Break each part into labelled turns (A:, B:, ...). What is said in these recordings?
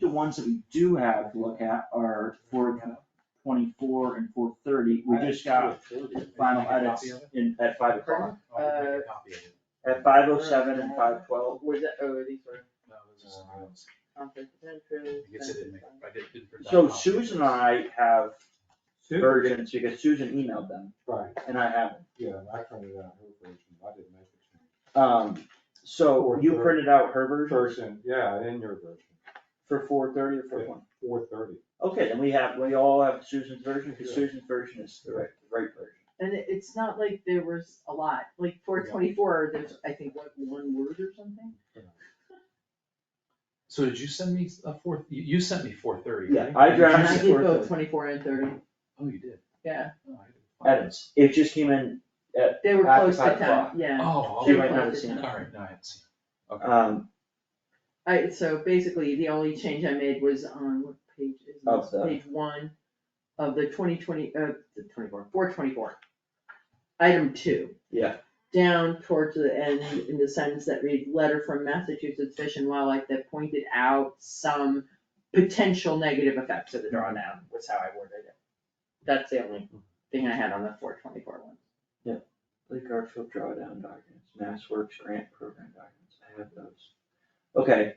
A: the ones that we do have to look at are four twenty-four and four thirty, we just got final edits in, at five
B: Oh,
A: o'clock. At five oh seven and five twelve,
C: Was it, oh, these were
B: I
C: conflict of interest.
B: guess uh, I didn't make, I did- didn't. print that
A: so
B: copy.
A: Susan and I have versions, because Susan emailed them,
D: Right,
A: and I haven't.
D: yeah, I printed out her version, I didn't make the
A: Um, so
D: Four
A: you
D: thirty.
A: printed out her
D: change.
A: version
D: Version, yeah, in your version,
A: for four thirty or four one?
D: four thirty.
A: Okay, then we have, we all have Susan's version, because
D: Yeah.
A: Susan's version is the right, the right version.
C: And it, it's not like there was a lot, like four twenty-four, there's, I think, what, one word or something?
B: So did you send me a fourth, you, you sent me four thirty,
A: Yeah,
B: right?
A: I
B: Did you
C: And
A: drafted-
C: I
B: send-
C: did both twenty-four and thirty,
B: Oh, you did.
C: yeah,
B: Oh, I didn't find it.
A: Edits, it just came in,
C: they were
A: After
C: close to
A: five
C: ten,
A: o'clock.
C: yeah.
B: Oh,
A: She
B: okay.
C: They were
A: might not
C: close
A: have
C: to
A: seen it.
C: 10.
B: all right, no, I haven't seen
A: um,
C: I, so basically, the only change I made was on, what page is
A: Of
C: this,
A: the-
C: page one of the twenty twenty, uh, the twenty-four, four twenty-four. Item two.
A: Yeah.
C: Down towards the end, in the sentence that reads, letter from Massachusetts Fish and Wildlife that pointed out some potential negative effects of the drawdown, was how I worded it. That's the only thing I had on the four twenty-four one.
A: Lake Garfield drawdown documents, Mass Works grant program documents, I have those. Okay,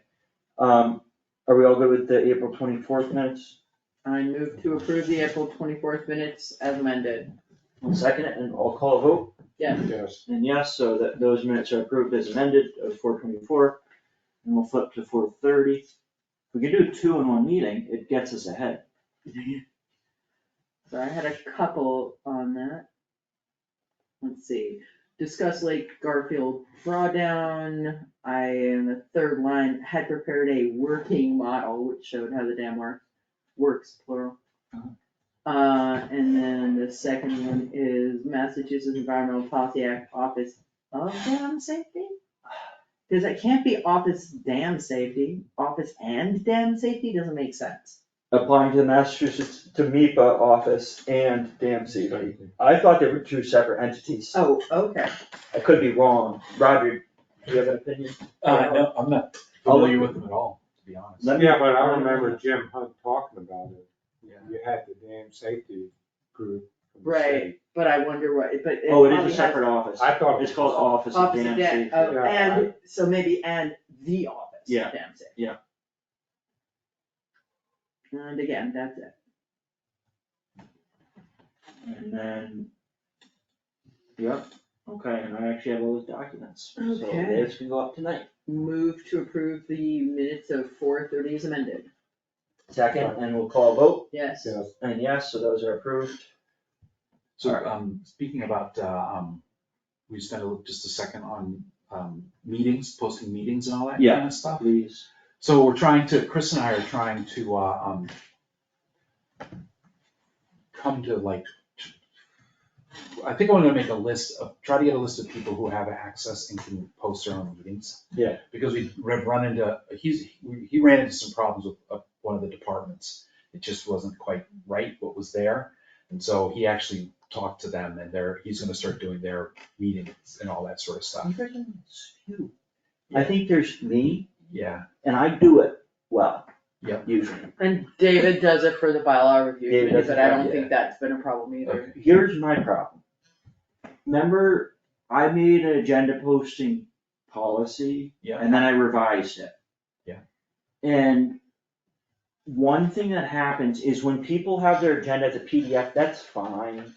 A: um, are we all good with the April twenty-fourth minutes?
C: I move to approve the April twenty-fourth minutes as amended,
A: One second, and I'll call a vote,
C: yes.
D: Yes,
A: and yes, so that those minutes are approved as amended, of four twenty-four, and we'll flip to four thirty. If we could do two in one meeting, it gets us ahead.
C: So I had a couple on that. Let's see, discuss Lake Garfield drawdown, I, in the third line, had prepared a working model which showed how the dam works, works plural.
A: Uh-huh.
C: Uh, and then the second one is Massachusetts Environmental Policy Act Office of Dam Safety? Cause it can't be Office Dam Safety, Office and Dam Safety doesn't make sense.
A: Applying to the Massachusetts, to MEPA office and dam safety.
D: exactly.
A: I thought they were two separate entities,
C: Oh, okay.
A: I could be wrong, Roger, do you have an opinion?
B: it. Uh, no, I'm not familiar with them at all, to be honest.
A: Let me-
D: Yeah, but I remember Jim Hunt talking about it, you had the damn safety group from the
C: Right.
D: city.
C: But I wonder what, but it
A: Oh,
C: probably
A: it
C: has.
A: is a separate office.
D: I thought. it
A: It's called
D: was-
A: Office of
C: Office
A: Dam
C: of
A: Safety.
C: Dam, oh,
D: Yeah,
C: and, so maybe and the office
A: Yeah,
C: of Dam Safety.
A: yeah.
C: And again, that's it.
A: And then, yep, okay, and I actually have all those documents, so
C: Okay.
A: this can go up tonight.
C: Move to approve the minutes of four thirty is amended.
A: Second, and we'll call a vote,
C: Yes.
D: Yes,
A: and yes, so those are approved.
B: So,
A: Alright.
B: um, speaking about, uh, um, we spent a little- just a second on, um, meetings, posting meetings and all that kind
A: Yeah.
B: of stuff.
A: Please.
B: So we're trying to, Chris and I are trying to, uh, um, come to like, I think I'm gonna make a list of, try to get a list of people who have access and can post their own meetings.
A: Yeah.
B: Because we've run into, he's, he ran into some problems with uh, one of the departments. It just wasn't quite right what was there. And so he actually talked to them and they're, he's gonna start doing their meetings and all that sort of
A: You
B: stuff.
A: guys are few. I think there's me,
B: Yeah,
A: and I do it well.
B: Yep.
A: Usually.
C: And David does it for the bylaw review,
A: David
C: committee,
A: does it,
C: but I don't
A: yeah.
C: think that's been a problem either.
B: okay,
A: Here's my problem. Remember, I made an agenda posting policy
B: yeah.
A: And then I revised it.
B: Yeah.
A: And one thing that happens is when people have their agenda as a PDF, that's fine.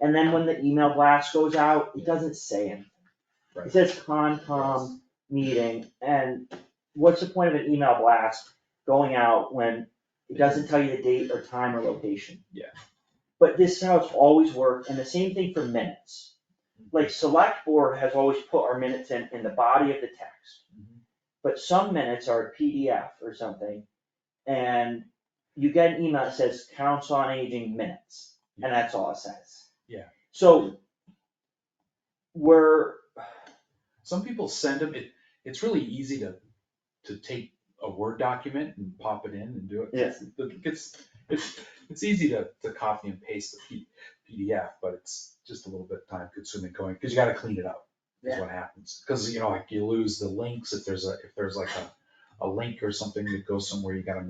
A: And then when the email blast goes out, it doesn't say anything.
B: Right.
A: It says Concom meeting, and what's the point of an email blast going out when it doesn't tell you the date or time or location?
B: Yeah.
A: But this is how it's always worked, and the same thing for minutes. Like select board has always put our minutes in, in the body of the text.
B: Mhm.
A: But some minutes are a PDF or something, and you get an email that says council on aging minutes, and that's all it says.
B: Yeah.
A: So we're,
B: Some people send them, it, it's really easy to, to take a Word document and pop it in and do it.
A: Yes.
B: It gets, it's, it's easy to, to copy and paste the P- PDF, but it's just a little bit time consuming going, because you gotta clean it up, is
C: Yeah.
B: what happens. Because, you know, like you lose the links if there's a, if there's like a, a link or something that goes somewhere, you gotta